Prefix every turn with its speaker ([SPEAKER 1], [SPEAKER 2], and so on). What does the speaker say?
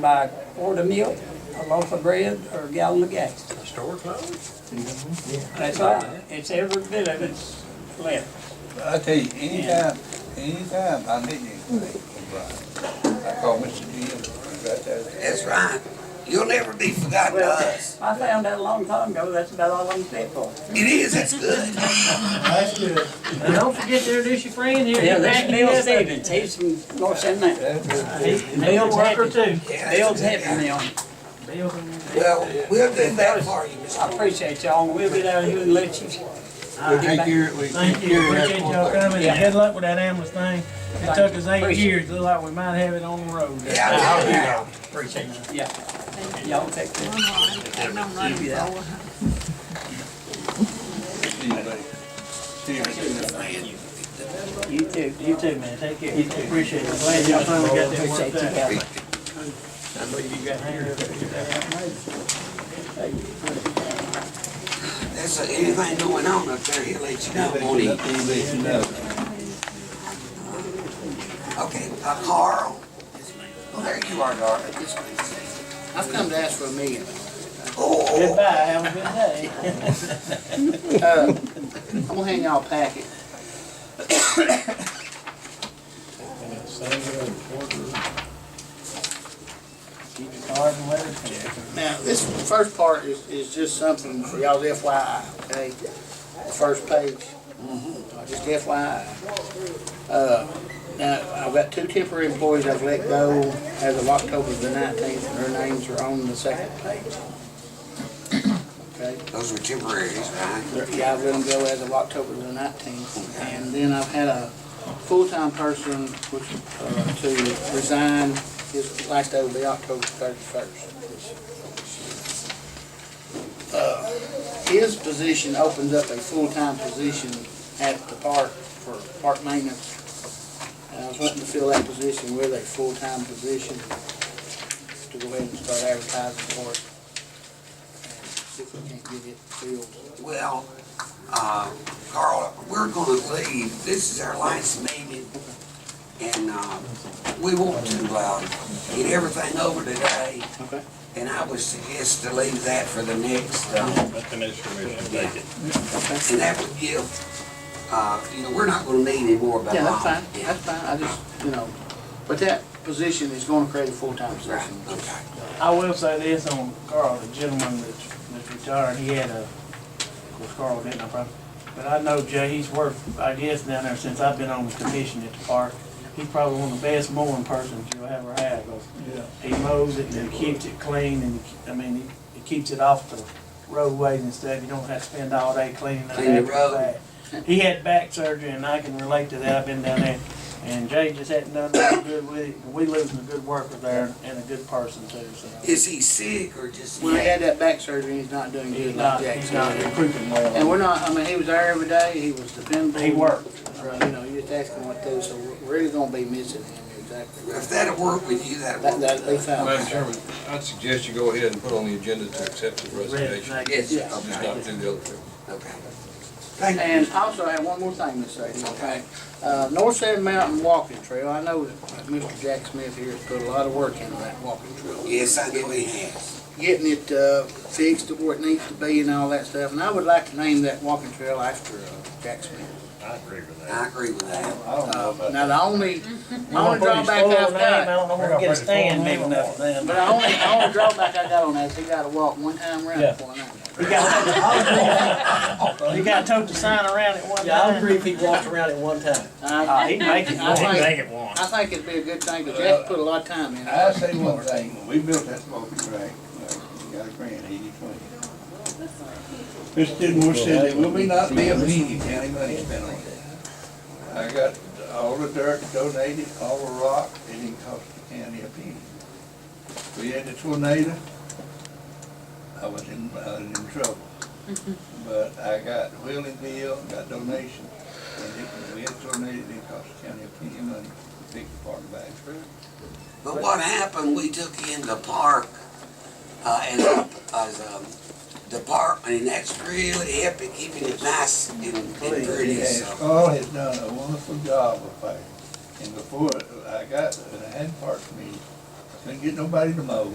[SPEAKER 1] buy a quart of milk, a loaf of bread, or a gallon of gas.
[SPEAKER 2] The store closed?
[SPEAKER 1] That's all. It's every bit of it's left.
[SPEAKER 3] I tell you, anytime, anytime I need anything from Brian, I call Mr. Jim, he's right there.
[SPEAKER 4] That's right. You'll never be forgotten to
[SPEAKER 1] Well,
[SPEAKER 4] us.
[SPEAKER 1] I found that a long time ago, that's about all I'm fit for.
[SPEAKER 4] It is, that's good.
[SPEAKER 5] And don't forget to introduce your friend here.
[SPEAKER 1] Yeah, that's
[SPEAKER 5] He's
[SPEAKER 1] Bill
[SPEAKER 5] happy.
[SPEAKER 1] Stevens, he's from North Carolina.
[SPEAKER 5] Bill's
[SPEAKER 1] Bill's
[SPEAKER 5] worker
[SPEAKER 1] happy,
[SPEAKER 5] too.
[SPEAKER 4] Yeah,
[SPEAKER 1] Bill's
[SPEAKER 4] that's-
[SPEAKER 1] happy now.
[SPEAKER 5] Bill.
[SPEAKER 4] Well, we'll do that for you, Mr.
[SPEAKER 1] I appreciate y'all, we'll get out of here and let you.
[SPEAKER 3] We'll take care, we'll
[SPEAKER 5] Thank
[SPEAKER 3] take
[SPEAKER 5] you,
[SPEAKER 3] care
[SPEAKER 5] appreciate
[SPEAKER 3] of
[SPEAKER 5] y'all
[SPEAKER 3] that.
[SPEAKER 5] coming, and good luck with that ambulance thing. It took us eight
[SPEAKER 1] Appreciate it.
[SPEAKER 5] years, look like we might have it on the road.
[SPEAKER 4] Yeah, I'll do that.
[SPEAKER 1] Appreciate you, yeah. Y'all take care.
[SPEAKER 3] See you later. See you later.
[SPEAKER 5] You too, you too, man, take care. You too. Appreciate it, glad y'all finally got that
[SPEAKER 1] Appreciate
[SPEAKER 5] worked
[SPEAKER 1] you,
[SPEAKER 5] out.
[SPEAKER 1] Calvin.
[SPEAKER 4] That's uh, anything going on up there, he'll let you know, won't he?
[SPEAKER 3] Let you know.
[SPEAKER 4] Okay, uh, Carl. Well, there you are, darling.
[SPEAKER 6] I've come to ask for a million.
[SPEAKER 4] Oh,
[SPEAKER 5] Goodbye, have a good day.
[SPEAKER 6] I'm gonna hand y'all a packet.
[SPEAKER 5] Keep your cards and letters.
[SPEAKER 6] Now, this first part is, is just something for y'all's FYI, okay? The first page,
[SPEAKER 5] Mm-hmm.
[SPEAKER 6] just FYI. Uh, now, I've got two temporary employees I've let go as of October the nineteenth, and their names are on the second page. Okay?
[SPEAKER 4] those were temporaries, right?
[SPEAKER 6] They're- Yeah, I've let them go as of October the nineteenth, and then I've had a full-time person which, uh, to resign, his last day will be October thirty-first. Uh, His position opens up a full-time position at the park for park maintenance. And I was wanting to fill that position with a full-time position to go ahead and start advertising for it. and See if we can't get it filled.
[SPEAKER 4] Well, uh, Carl, we're gonna leave. This is our last meeting. And, uh, we won't do, uh, get everything over today.
[SPEAKER 6] Okay.
[SPEAKER 4] And I would suggest to leave that for the next, uh,
[SPEAKER 2] Let the next commission take it.
[SPEAKER 4] And that would give, uh, you know, we're not gonna need any more about.
[SPEAKER 6] Yeah, that's
[SPEAKER 4] Lon.
[SPEAKER 6] fine, that's fine, I just, you know, but that position is gonna create a full-time
[SPEAKER 4] Right,
[SPEAKER 6] position.
[SPEAKER 4] okay.
[SPEAKER 5] I will say this on Carl, the gentleman that's, that's retired, he had a, of course Carl didn't, I probably, but I know Jay, he's worked, I guess, down there since I've been on the commission at the park. He's probably one of the best mowing persons you'll ever have, 'cause he mows it and he keeps it clean and, I mean, he- he keeps it off the roadways and stuff, you don't have to spend all day cleaning it
[SPEAKER 4] Clean the
[SPEAKER 5] after
[SPEAKER 4] road.
[SPEAKER 5] the fact. He had back surgery and I can relate to that, I've been down there, and Jay just hadn't done nothing good with it, we losing a good worker there and a good person too, so.
[SPEAKER 4] Is he sick or just?
[SPEAKER 6] When he had that back surgery, he's not doing
[SPEAKER 5] He's
[SPEAKER 6] good
[SPEAKER 5] not,
[SPEAKER 6] like
[SPEAKER 5] he's not
[SPEAKER 6] that.
[SPEAKER 5] recruiting
[SPEAKER 6] And
[SPEAKER 5] well.
[SPEAKER 6] we're not, I mean, he was there every day, he was dependable.
[SPEAKER 5] He worked.
[SPEAKER 6] You know, you just ask him what those, so we're really gonna be missing him, exactly.
[SPEAKER 4] If that'd work with you, that'd
[SPEAKER 6] That,
[SPEAKER 4] work.
[SPEAKER 6] that, they found.
[SPEAKER 7] Madam Chairman, I'd suggest you go ahead and put on the agenda to accept the resignation.
[SPEAKER 5] Resignation.
[SPEAKER 4] Yes,
[SPEAKER 6] Yeah.
[SPEAKER 7] Just
[SPEAKER 4] okay,
[SPEAKER 7] not do the other two.
[SPEAKER 4] okay. Thank
[SPEAKER 6] And
[SPEAKER 4] you.
[SPEAKER 6] also, I have one more thing to say. Okay. Uh, North Sand Mountain Walking Trail, I know that Mr. Jack Smith here has put a lot of work into that walking trail.
[SPEAKER 4] Yes, I know he has.
[SPEAKER 6] getting it uh, fixed to where it needs to be and all that stuff. And I would like to name that walking trail after uh, Jack Smith. Uh,
[SPEAKER 2] I agree with that.
[SPEAKER 4] I agree with that.
[SPEAKER 3] I don't know about
[SPEAKER 6] Now, the only, the only drawback I've
[SPEAKER 5] I
[SPEAKER 6] got,
[SPEAKER 5] don't know where to get a stand big enough for them.
[SPEAKER 6] but the only, the only drawback I got on that is he gotta walk one time around
[SPEAKER 5] Yeah.
[SPEAKER 6] before I know it.
[SPEAKER 5] You gotta, you gotta tote the sign around at one time.
[SPEAKER 8] Yeah, I agree if he walked around at one time.
[SPEAKER 5] Uh,
[SPEAKER 6] I
[SPEAKER 5] he'd make it
[SPEAKER 6] I
[SPEAKER 5] work.
[SPEAKER 2] Didn't
[SPEAKER 6] think,
[SPEAKER 2] make it one.
[SPEAKER 6] I think it'd be a good thing, 'cause Jack put a lot of time in
[SPEAKER 3] it.
[SPEAKER 6] it.
[SPEAKER 3] I say one thing, when we built that smoking crack, we uh, got a grant, eighty twenty. Mr. Denmore said that we may not be a penny county money spent on it. I got all the dirt donated, all the rock, it didn't cost the county a penny. We had the tornado, I was in, I was in trouble. But I got wheeling bill, got donations, and it, we had tornado, it didn't cost the county a penny of money to pick the park back.
[SPEAKER 4] But what happened, we took in the park, uh, and, as a department, and that's really helping keeping it nice and and pretty,
[SPEAKER 3] Yes,
[SPEAKER 4] so.
[SPEAKER 3] Carl has done a wonderful job of that. And before I got, when I had park committee, I
[SPEAKER 9] Couldn't get nobody to mow.